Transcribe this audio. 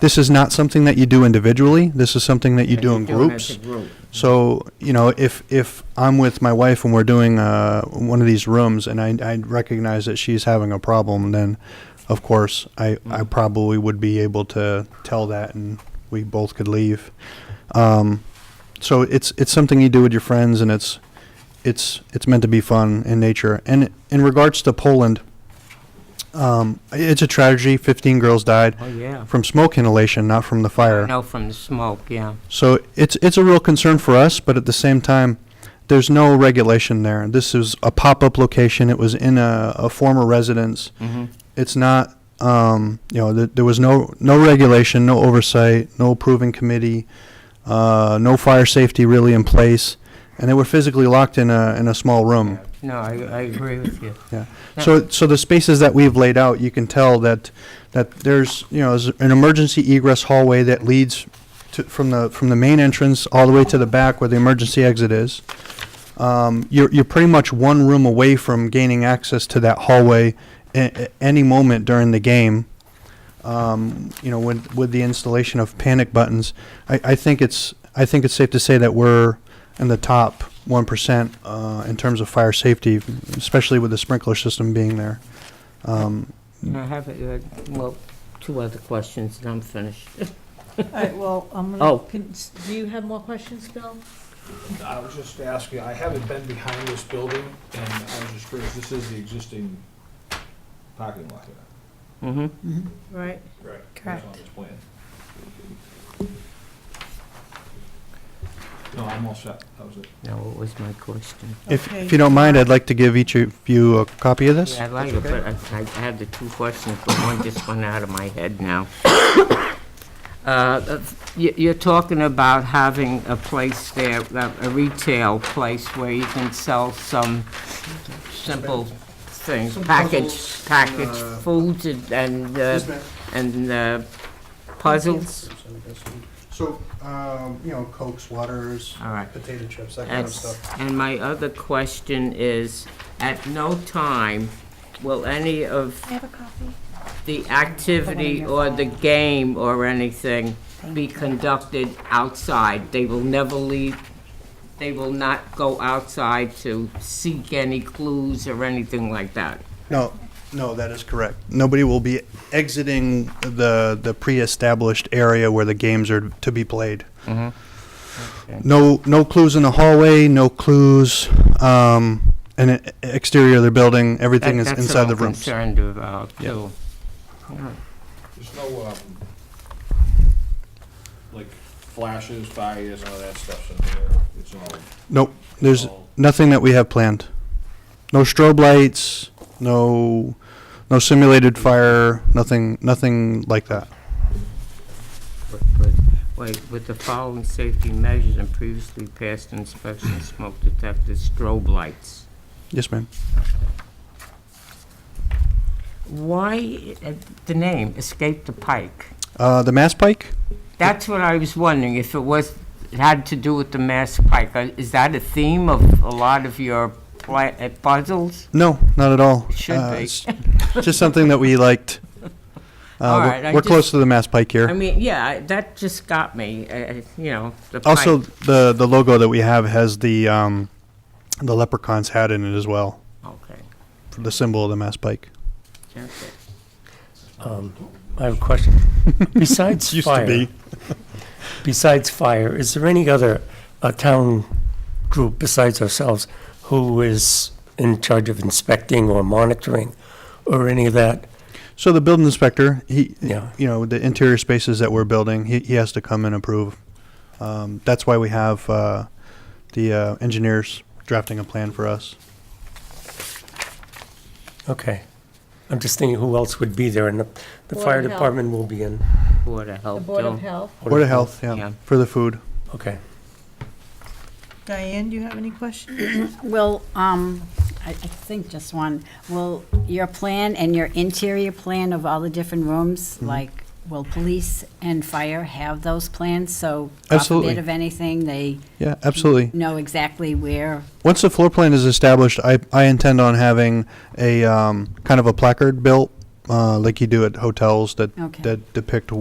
This is not something that you do individually. This is something that you do in groups. So, you know, if, if I'm with my wife and we're doing uh, one of these rooms and I, I recognize that she's having a problem, then of course I, I probably would be able to tell that and we both could leave. Um, so it's it's something you do with your friends and it's it's it's meant to be fun in nature. And in regards to Poland, um, it's a tragedy. Fifteen girls died Oh, yeah. from smoke inhalation, not from the fire. No, from the smoke, yeah. So it's it's a real concern for us, but at the same time, there's no regulation there. This is a pop-up location. It was in a, a former residence. Mhm. It's not, um, you know, th- there was no no regulation, no oversight, no approving committee, uh, no fire safety really in place, and they were physically locked in a in a small room. No, I, I agree with you. Yeah. Yeah. So, so the spaces that we've laid out, you can tell that, that there's, you know, there's an emergency egress hallway that leads to, from the, from the main entrance all the way to the back where the emergency exit is. Um, you're, you're pretty much one room away from gaining access to that hallway a- a- any moment during the game. Um, you know, with, with the installation of panic buttons, I, I think it's, I think it's safe to say that we're in the top one percent, uh, in terms of fire safety, especially with the sprinkler system being there. Um, And I have, uh, well, two other questions, and I'm finished. All right, well, I'm Oh. gonna, can- s- do you have more questions, Bill? I was just asking, I haven't been behind this building, and I was just curious, this is the existing parking lot here. Mm-hmm. Right, Right. Correct. It's on this plan. No, I'm all set, that was it. No, what was my question? If, if Okay. you don't mind, I'd like to give each of you a copy of this. Yeah, I like it, but I, I had the two questions, but one just went out of my head now. Uh, that's- you- You're talking about having a place there, uh, a retail place where you can sell some simple things, Some packaged, puzzles, packaged uh, foods and- and, uh, and uh, puzzles. So, um, you know, Cokes, waters, All right. potato chips, that And- And my other question is, at no time will any of I have a copy. the activity or the game or anything be conducted outside. They will never leave, they will not go outside to seek any clues or anything like that. No, no, that is correct. Nobody will be exiting the, the pre-established area where the games are to be played. No, no clues in the hallway, no clues, um, in the exterior of the building, everything is That- inside the rooms. That's what I'm concerned about, too. There's no, um, like flashes, fires, all that stuff's in there, it's all. Nope, there's all- nothing that we have planned. No strobe lights, no, no simulated fire, nothing, nothing like that. But- but, Wait, with the following safety measures and previously passed inspection, smoke detectors, strobe lights. Yes, ma'am. Why, uh, the name, Escape the Pike? Uh, the Mass Pike? That's what I was wondering, if it was, it had to do with the Mass Pike. Uh, Is that a theme of a lot of your pla- uh, puzzles? No, not at all. It should Uh, be. it's Just something that we liked. Uh, All we're- right, I We're close just- to the Mass Pike I here. mean, yeah, I- that just got me, uh, uh, you know, the pike. Also, the, the logo that we have has the, um, the leprechaun's hat in it as well, Okay, for the symbol of the Mass Pike. that's it. I have a question. Besides Used to fire, be. besides fire, is there any other uh, town group besides ourselves who is in charge of inspecting or monitoring or any of that? So the building inspector, he, Yeah. you know, the interior spaces that we're building, he, he has to come and approve. Um, that's why we have, uh, the, uh, engineers drafting a plan for us. Okay. I'm just thinking who else would be there and the, the Board of fire Health. department will be in. Board of the Health, Board of too. Health. Board of Health, yeah, Yeah. for the food. Okay. Diane, do you have any questions? Will, um, I, I think just one, will your plan and your interior plan of all the different rooms, Mm-hmm. like, will police and fire have those plans? So God Absolutely. forbid of anything, they Yeah, absolutely. know exactly where, Once the floor plan is established, I, I intend on having a, um, kind of a placard built, uh, like you do at hotels that, Okay. that depict